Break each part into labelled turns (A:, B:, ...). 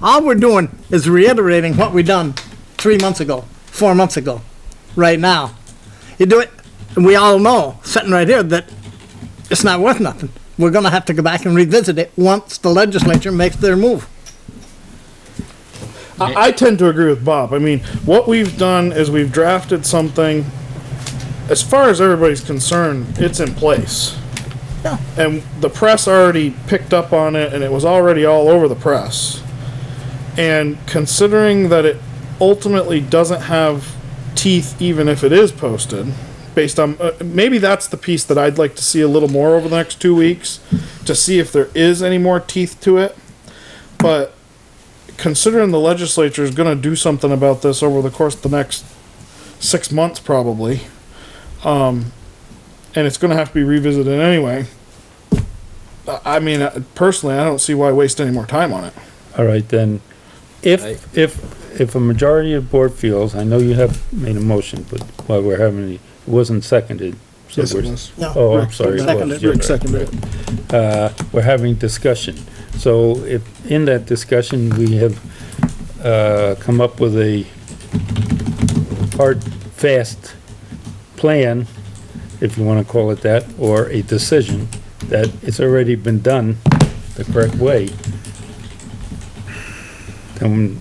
A: all we're doing is reiterating what we done three months ago, four months ago, right now. You do it, and we all know, sitting right here, that it's not worth nothing. We're gonna have to go back and revisit it once the legislature makes their move.
B: I, I tend to agree with Bob. I mean, what we've done is we've drafted something. As far as everybody's concerned, it's in place.
A: Yeah.
B: And the press already picked up on it, and it was already all over the press. And considering that it ultimately doesn't have teeth, even if it is posted, based on uh, maybe that's the piece that I'd like to see a little more over the next two weeks to see if there is any more teeth to it. But considering the legislature is going to do something about this over the course of the next six months, probably, um, and it's going to have to be revisited anyway. I- I mean, uh, personally, I don't see why waste any more time on it.
C: All right, then, if, if, if a majority of board feels, I know you have made a motion, but while we're having, the- it wasn't seconded. so
B: Yes, it
C: we're-
B: was.
A: No.
C: Oh, I'm
A: Rick
C: sorry. it was,
A: seconded.
C: you're
B: Rick
C: right.
B: seconded it.
C: Uh, we're having discussion. So if, in that discussion, we have, uh, come up with a hard, fast plan, if you wanna call it that, or a decision that it's already been done the correct way. Then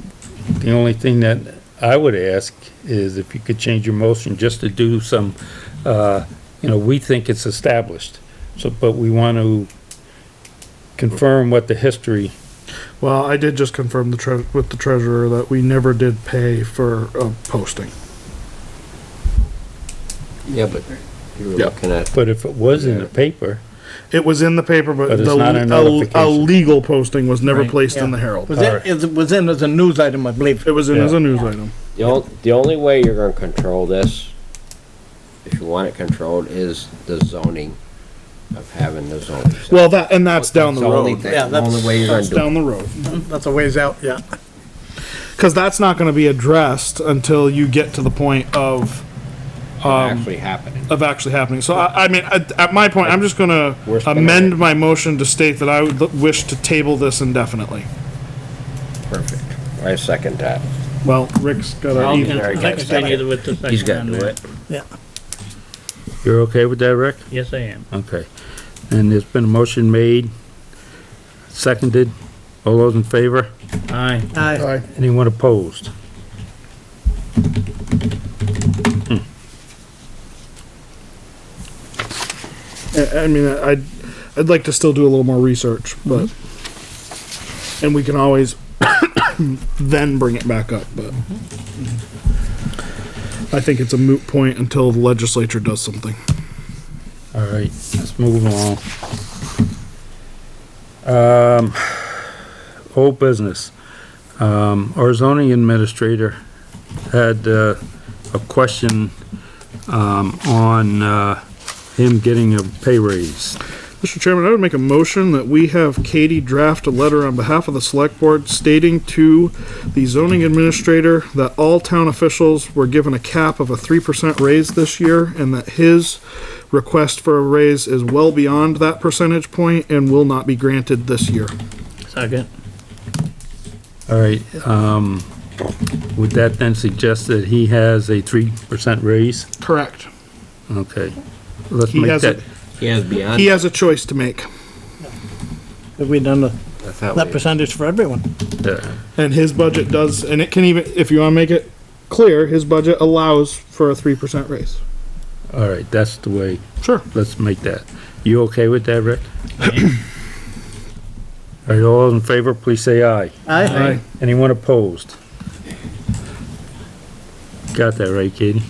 C: the only thing that I would ask is if you could change your motion just to do some, uh, you know, we think it's established. So, but we want to confirm what the history,
B: Well, I did just confirm the tre- with the treasurer that we never did pay for a posting.
D: Yeah, but you were
B: Yeah.
D: looking at,
C: but if it was in the paper,
B: It was in the paper, but,
C: But it's
B: the
C: not a
B: a- a,
C: notification.
B: legal posting was never
C: Right.
B: placed in
A: Yeah.
B: the Herald.
A: Was in,
C: Alright.
A: it was in as a news item, I believe.
B: It was in as
C: Yeah.
B: a news item.
D: the only, the only way you're gonna control this, if you want it controlled, is the zoning of having the zoning.
B: Well, that and that's down the
D: It's only
B: road.
D: thing-
A: Yeah, that's-
D: Only way you're gonna
B: That's
D: do it.
B: down the road.
A: That's a ways out, yeah.
B: Because that's not going to be addressed until you get to the point of,
D: actually happening.
B: of actually happening. So I, I mean, at, at my point, I'm just going
D: We're
B: to
D: spinning
B: amend
D: it.
B: my motion to state that I would l- wish to table this indefinitely.
D: Perfect. I second that.
B: Well, Rick's got to.
D: I'll
B: eat.
D: Very
E: I
D: good.
E: continue with the second.
D: He's gotta do
E: amendment.
D: it.
C: you're okay with that, Rick?
E: Yes, I am.
C: Okay. And there's been a motion made, seconded. All those in favor?
E: Aye.
A: Aye.
B: Aye.
C: Anyone opposed?
B: I, I mean, I'd, I'd like to still do a little more research, but, and we can always then bring it back up, but Mm-hmm. I think it's a moot point until the legislature does something.
C: All right, let's move along. Um, old business. Um, our zoning administrator had, uh, a question, um, on, uh, him getting a pay raise.
B: Mr. Chairman, I would make a motion that we have Katie draft a letter on behalf of the select board stating to the zoning administrator that all town officials were given a cap of a three percent raise this year and that his request for a raise is well beyond that percentage point and will not be granted this year.
E: Second.
C: All right, um, would that then suggest that he has a three percent raise?
B: Correct.
C: Okay. Let's
B: He
C: make
B: has a-
C: that,
D: He has beyond.
B: He has a choice to make
A: Have we done the-
D: I thought
A: that
D: we-
A: percentage for everyone?
C: uh,
B: and his budget does, and it can even, if you wanna make it clear, his budget allows for a three percent raise.
C: all right, that's the way,
B: Sure.
C: let's make that. You okay with that, Rick? All right, all in favor, please say aye.
A: Aye.
C: Anyone opposed? Got that right, Katie?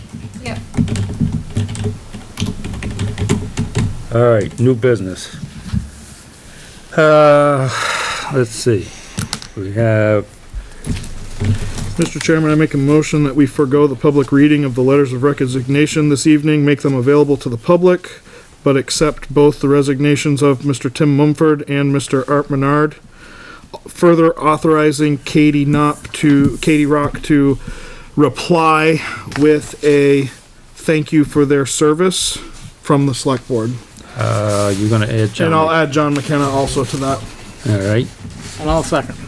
F: Yep.
C: All right, new business. Uh, let's see. We have,
B: Mr. Chairman, I make a motion that we forego the public reading of the letters of resignation this evening, make them available to the public, but accept both the resignations of Mr. Tim Mumford and Mr. Art Menard. Further authorizing Katie Knop to, Katie Rock to reply with a thank you for their service from the select board.
C: uh, you're gonna add John.
B: And I'll add John McKenna also to that.
C: All right,
A: And I'll second.